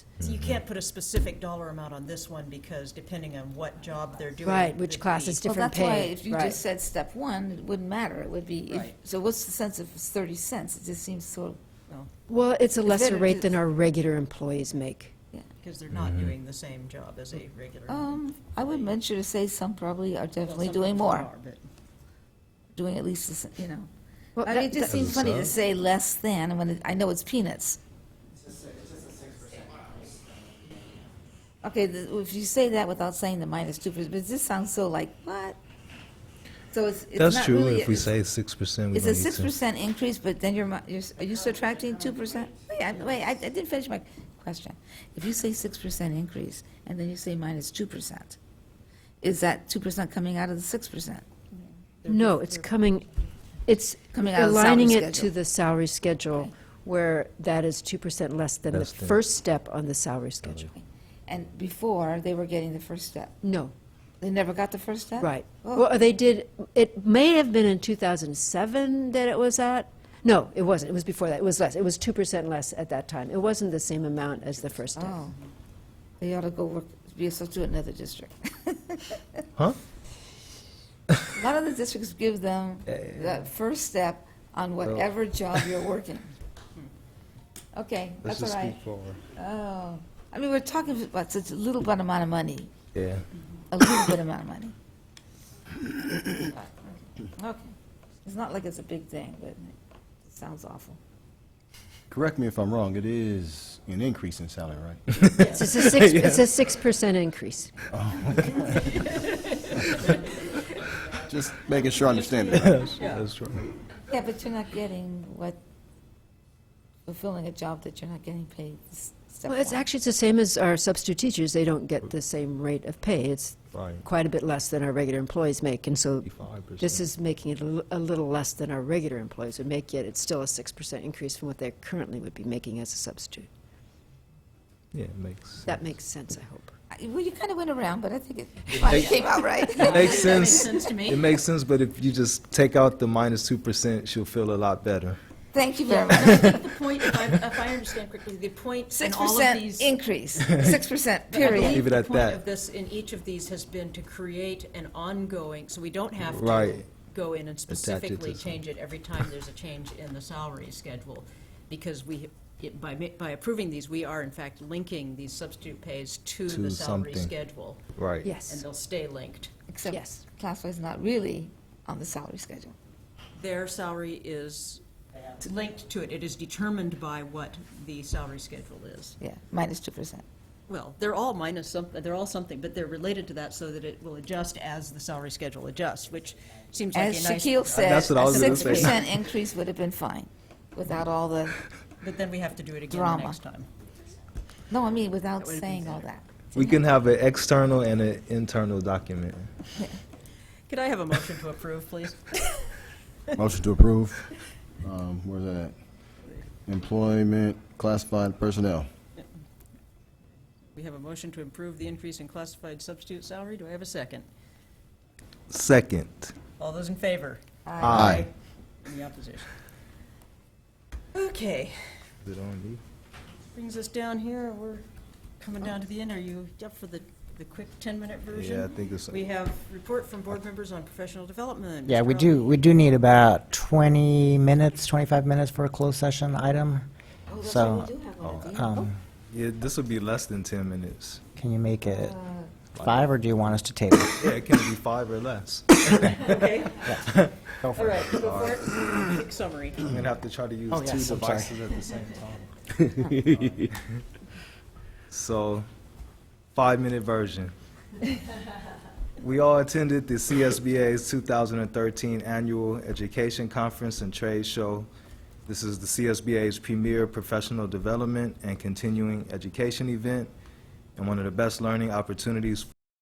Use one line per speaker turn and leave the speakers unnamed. you
Mm-hmm.
can't put a specific dollar amount on this one because depending on what job they're doing.
Right,
it
which
could
class
be.
is
Well,
different
that's why
pay,
if you just
right?
said step one, it wouldn't matter. It would be, if-
Right.
so what's the sense if it's 30 cents? It just seems so,
Well, it's a lesser
it-
rate than our regular employees make.
Because they're not
Mm-hmm.
doing the same job as a regular.
um, I would venture to say some probably are
well,
definitely
some
doing
people
more,
are, but-
doing at least, the s- you know.
Well,
I mean,
that-
it just
that-
seems funny to
sound?
say less than when it- I know it's peanuts. Okay, the- if you say that without saying the minus two percent, but this sounds so like, what? So it's, it's
That's
not
true.
really-
if we say six percent, we
It's
don't
a
need
six
to.
percent increase, but then you're, mi- you're, s- are you subtracting two percent? Wait, I, wait, I I didn't finish my question. If you say six percent increase, and then you say minus two percent, is that two percent coming out of the six percent?
No, it's coming, it's
Coming out of the salary
aligning it to
schedule.
the salary schedule where that is 2% less than the
Less than-
first step on the salary schedule.
And before, they were getting the first step.
No,
They never got the first step?
right.
Oh.
Well, they did, it may have been in 2007 that it was at, no, it wasn't, it was before that, it was less, it was 2% less at that time. It wasn't the same amount as the first step.
Oh, they ought to go work, be a substitute in another district.
Huh?
A lot of the districts give them the first step on whatever job you're working. Okay,
Let's
that's all
just
right.
speak forward.
Oh, I mean, we're talking about such a little bit amount of money,
Yeah.
a little bit amount of money. Okay, it's not like it's a big thing, but it sounds awful.
Correct me if I'm wrong, it is an increase in salary, right?
It's a six, it's a 6% increase.
Just making sure I understand it. right?
That's right.
Yeah, but you're not getting what, fulfilling a job that you're not getting paid. s- step
Well, it's
one.
actually, it's the same as our substitute teachers, they don't get the same rate of pay. It's
Right.
quite a bit less than our regular employees make, and so
55%.
this is making it a li- a little less than our regular employees would make, yet it's still a 6% increase from what they currently would be making as a substitute.
Yeah, it makes.
That makes sense, I hope.
I- Well, you kind of went around, but I think it finally came out right.
It makes
Makes
sense.
sense to
It
me.
makes sense, but if you just take out the minus two percent, she'll feel a lot better.
Thank you very much.
The point, if I, if I understand correctly, the point in
Six
all of these.
percent increase, six percent,
But I
period.
believe
Leave it
the
at
point
that.
of this, in each of these has been to create an ongoing, so we don't have to
Right.
go in and
to
specifically
some-
change it every time there's a change in the salary schedule. Because we, it- by, ma- by approving these, we are in fact linking these substitute pays to
To
the salary
something.
schedule.
Right.
And
Yes,
they'll stay linked.
Yes.
Except classified's not really on the salary schedule.
Their salary is linked to it. It is determined by what the salary schedule is.
Yeah, minus two percent.
Well, they're all minus something, they're all something, but they're related to that so that it will adjust as the salary schedule adjusts, which seems like a
As
nice.
Shaquille said,
That's what I
a
was gonna
six
say.
percent increase would have been fine, without all the,
But then we have to do it again the
Drama.
next time.
no, I mean, without saying all that.
We can have an external and an internal document.
Could I have a motion to approve, please?
Motion to approve. Um, where's that at? Employment, classified personnel.
We have a motion to approve the increase in classified substitute salary. Do I have a second?
Second.
All those in favor?
Aye.
Any opposition? Okay,
Is it on me?
brings us down here. We're coming down to the end. Are you up for the, the quick 10-minute version?
Yeah, I think it's.
We have report from board members on professional development.
Yeah,
Mr.
we
Rowley.
do, we do need about 20 minutes, 25 minutes for a closed session item.
Oh, that's
So,
right, we do have one of these.
um,
Yeah, this will be less than ten minutes.
can you make
Oh,
it
uh,
five, or do you want us to table? it?
Yeah, it can be five or less.
Okay,
Go for
all
it.
right, go for it. Quick summary.
I'm gonna have to try to use
Oh,
two
yes, I'm sorry.
devices at the same time. so, five minute version. We all attended the CSBA's 2013 Annual Education Conference and Trade Show. This is the CSBA's premier professional development and continuing education event, and one of the best learning opportunities